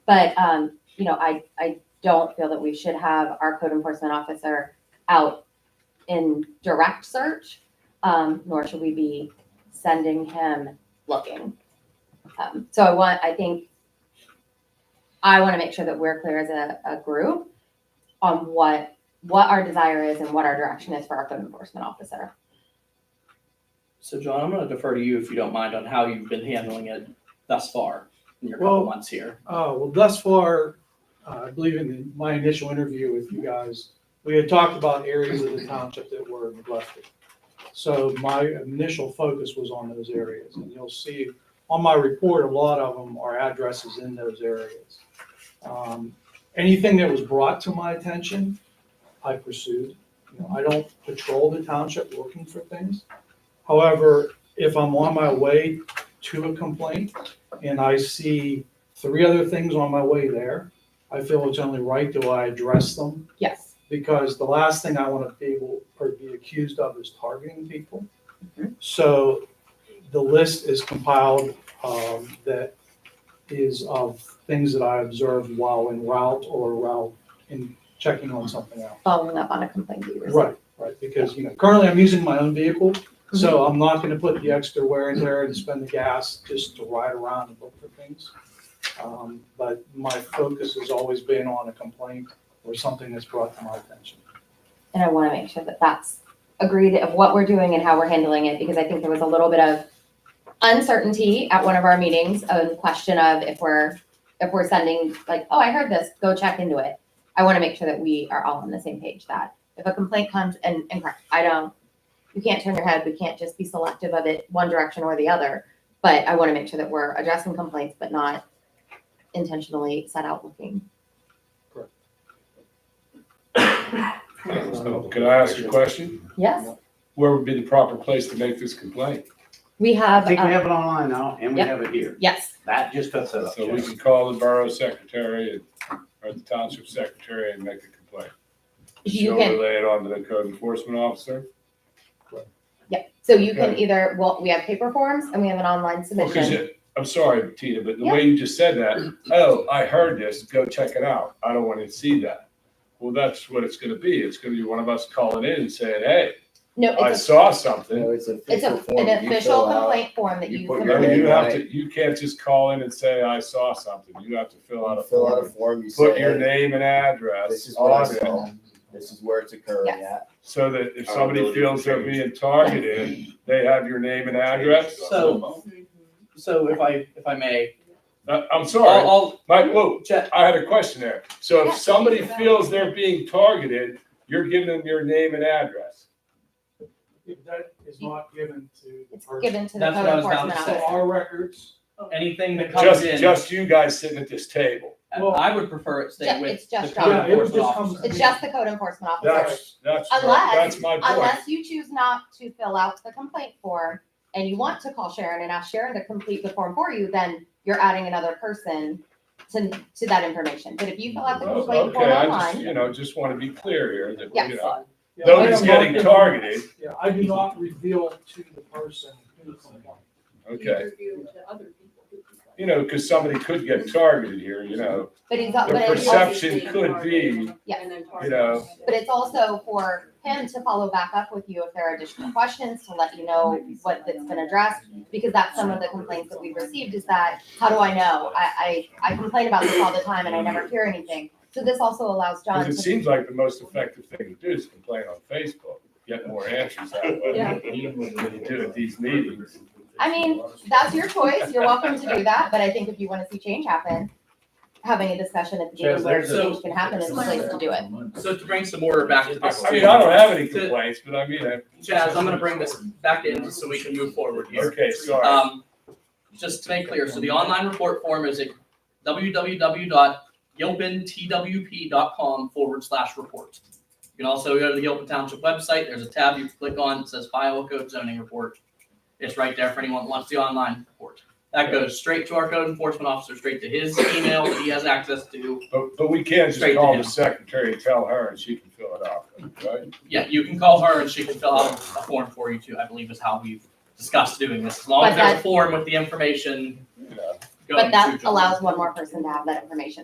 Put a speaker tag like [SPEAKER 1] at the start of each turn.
[SPEAKER 1] But, um, you know, I, I don't feel that we should have our code enforcement officer out in direct search, um, nor should we be sending him looking. Um, so I want, I think, I want to make sure that we're clear as a, a group on what, what our desire is and what our direction is for our code enforcement officer.
[SPEAKER 2] So John, I'm gonna defer to you if you don't mind on how you've been handling it thus far in your
[SPEAKER 3] Well-
[SPEAKER 2] couple months here.
[SPEAKER 3] Uh, well, thus far, uh, I believe in the- my initial interview with you guys, we had talked about areas of the township that were neglected. So my initial focus was on those areas, and you'll see on my report, a lot of them are addresses in those areas. Um, Anything that was brought to my attention, I pursued. You know, I don't patrol the township looking for things. However, if I'm on my way to a complaint and I see three other things on my way there. I feel it's only right do I address them
[SPEAKER 1] Yes.
[SPEAKER 3] because the last thing I want to be able or be accused of is targeting people. So the list is compiled um, that is of things that I observed while en route or while in checking on something out.
[SPEAKER 1] Following up on a complaint that you received.
[SPEAKER 3] Right, right, because, you know, currently I'm using my own vehicle, so I'm not gonna put the extra wear and tear and spend the gas just to ride around and look for things. Um, but my focus has always been on a complaint or something that's brought to my attention.
[SPEAKER 1] And I want to make sure that that's agreed of what we're doing and how we're handling it, because I think there was a little bit of uncertainty at one of our meetings on question of if we're, if we're sending, like, oh, I heard this, go check into it. I want to make sure that we are all on the same page that if a complaint comes and, and correct, I don't, you can't turn your head, we can't just be selective of it one direction or the other. But I want to make sure that we're addressing complaints, but not intentionally set out looking.
[SPEAKER 4] So, Could I ask a question?
[SPEAKER 1] Yes,
[SPEAKER 4] Where would be the proper place to make this complaint?
[SPEAKER 1] we
[SPEAKER 5] I
[SPEAKER 1] have,
[SPEAKER 5] think we
[SPEAKER 1] um,
[SPEAKER 5] have it online now, and we
[SPEAKER 1] Yep.
[SPEAKER 5] have it here.
[SPEAKER 1] yes.
[SPEAKER 5] That just does
[SPEAKER 6] Uh,
[SPEAKER 5] it up.
[SPEAKER 4] So we can call the borough secretary and, or the township secretary and make a complaint.
[SPEAKER 1] You
[SPEAKER 4] She'll
[SPEAKER 1] can-
[SPEAKER 4] relay it on to the code enforcement officer.
[SPEAKER 1] Yeah, so you can
[SPEAKER 4] Okay.
[SPEAKER 1] either, well, we have paper forms and we have an online
[SPEAKER 4] Well, 'cause
[SPEAKER 1] submission.
[SPEAKER 4] it- I'm sorry, Tina, but the way you just said that, oh, I heard this, go check it out. I don't want to see that. Well, that's what it's gonna be. It's gonna be one of us calling in and saying, hey,
[SPEAKER 1] No,
[SPEAKER 4] I
[SPEAKER 1] it's
[SPEAKER 4] saw something.
[SPEAKER 6] No, it's an
[SPEAKER 1] a, it's
[SPEAKER 6] official
[SPEAKER 1] a,
[SPEAKER 6] form that
[SPEAKER 1] an
[SPEAKER 6] you
[SPEAKER 1] official
[SPEAKER 6] fill out.
[SPEAKER 1] complaint form that
[SPEAKER 6] you
[SPEAKER 1] you,
[SPEAKER 6] put
[SPEAKER 4] I
[SPEAKER 6] your
[SPEAKER 1] submit.
[SPEAKER 4] mean, you
[SPEAKER 6] name
[SPEAKER 4] have
[SPEAKER 6] on
[SPEAKER 4] to, you can't just call in and say, I saw something. You have to fill out a
[SPEAKER 6] You Fill out a
[SPEAKER 4] form.
[SPEAKER 6] form, you
[SPEAKER 4] Put
[SPEAKER 6] say,
[SPEAKER 4] your
[SPEAKER 6] hey,
[SPEAKER 4] name and
[SPEAKER 6] this
[SPEAKER 4] address
[SPEAKER 6] is what I
[SPEAKER 4] on it.
[SPEAKER 6] saw, this is where it's occurring
[SPEAKER 1] Yes.
[SPEAKER 6] at.
[SPEAKER 4] So that if somebody
[SPEAKER 7] Accountability
[SPEAKER 4] feels
[SPEAKER 7] for
[SPEAKER 4] they're
[SPEAKER 7] change.
[SPEAKER 4] being targeted, they have your name and address.
[SPEAKER 2] So, so if I, if I may,
[SPEAKER 4] Uh, I'm
[SPEAKER 2] I'll,
[SPEAKER 4] sorry,
[SPEAKER 2] I'll
[SPEAKER 4] Mike, whoa,
[SPEAKER 2] check,
[SPEAKER 4] I had a question there. So
[SPEAKER 1] Yeah.
[SPEAKER 4] if somebody feels they're being targeted, you're giving them your name and address.
[SPEAKER 3] If that is not given to the
[SPEAKER 1] It's
[SPEAKER 3] person.
[SPEAKER 1] given to the
[SPEAKER 2] That's
[SPEAKER 1] code
[SPEAKER 2] what I was about
[SPEAKER 1] enforcement
[SPEAKER 2] to
[SPEAKER 3] So
[SPEAKER 1] officer.
[SPEAKER 2] say.
[SPEAKER 3] our records,
[SPEAKER 2] anything that comes
[SPEAKER 4] Just,
[SPEAKER 2] in, uh,
[SPEAKER 4] just you guys sitting at this table.
[SPEAKER 3] Well-
[SPEAKER 2] I would prefer it stay
[SPEAKER 1] Ju-
[SPEAKER 2] with
[SPEAKER 1] it's
[SPEAKER 2] the
[SPEAKER 1] just
[SPEAKER 2] code
[SPEAKER 3] John. Yeah, it
[SPEAKER 2] enforcement
[SPEAKER 3] just comes-
[SPEAKER 2] officer.
[SPEAKER 1] It's just the code enforcement officer.
[SPEAKER 4] That's, that's,
[SPEAKER 1] Unless-
[SPEAKER 4] that's my point.
[SPEAKER 1] Unless you choose not to fill out the complaint form and you want to call Sharon and ask Sharon to complete the form for you, then you're adding another person to, to that information. But if you fill out the
[SPEAKER 4] Well,
[SPEAKER 1] complaint form
[SPEAKER 4] Oh, Okay, I just,
[SPEAKER 1] online,
[SPEAKER 4] you know, just want to be clear here that,
[SPEAKER 1] Yes.
[SPEAKER 4] you know,
[SPEAKER 3] yeah, I
[SPEAKER 4] nobody's
[SPEAKER 3] am
[SPEAKER 4] getting
[SPEAKER 3] not-
[SPEAKER 4] targeted,
[SPEAKER 3] Yeah, I do not reveal to the person who complained.
[SPEAKER 4] okay?
[SPEAKER 8] Interview to other people who complain.
[SPEAKER 4] You know, because somebody could get targeted here, you know.
[SPEAKER 1] but he's, but
[SPEAKER 4] The
[SPEAKER 1] it's
[SPEAKER 4] perception
[SPEAKER 1] also
[SPEAKER 4] could be,
[SPEAKER 1] Yeah.
[SPEAKER 8] And then
[SPEAKER 4] you know,
[SPEAKER 1] But it's also for him to follow back up with you if there are additional questions, to let you know what that's been addressed. Because that's some of the complaints that we've received is that, how do I know? I, I, I complain about this all the time and I never hear anything. So this also allows John
[SPEAKER 4] Because
[SPEAKER 1] to,
[SPEAKER 4] it seems like the most effective thing to do is complain on Facebook, get more answers that way
[SPEAKER 8] Yeah.
[SPEAKER 4] than you do at these meetings.
[SPEAKER 1] I mean, that's your choice, you're welcome to do that, but I think if you wanna see change happen, having a discussion at the table where change can happen is the place to do it.
[SPEAKER 2] So to bring some order back to this.
[SPEAKER 4] I mean, I don't have any
[SPEAKER 2] to-
[SPEAKER 4] complaints, but I mean, I.
[SPEAKER 2] Chaz, I'm gonna bring this back in so we can move forward here.
[SPEAKER 4] Okay, sorry.
[SPEAKER 2] Um, just to make clear, so the online report form is at www.gilpintwp.com forward slash report. You can also go to the Gilpin Township website, there's a tab you click on, it says Iowa Code Zoning Report. It's right there for anyone who wants the online report. That goes straight to our code enforcement officer, straight to his email that he has access to.
[SPEAKER 4] But, but we can't just
[SPEAKER 2] Straight to
[SPEAKER 4] call
[SPEAKER 2] him.
[SPEAKER 4] the secretary and tell her and she can fill it out, right?
[SPEAKER 2] Yeah, you can call her and she can fill out a form for you too, I believe is how we've discussed doing this. As long as
[SPEAKER 1] But
[SPEAKER 2] there's a
[SPEAKER 1] that-
[SPEAKER 2] form with the information
[SPEAKER 4] You know.
[SPEAKER 2] going
[SPEAKER 1] But that
[SPEAKER 2] to John.
[SPEAKER 1] allows one more person to have that information.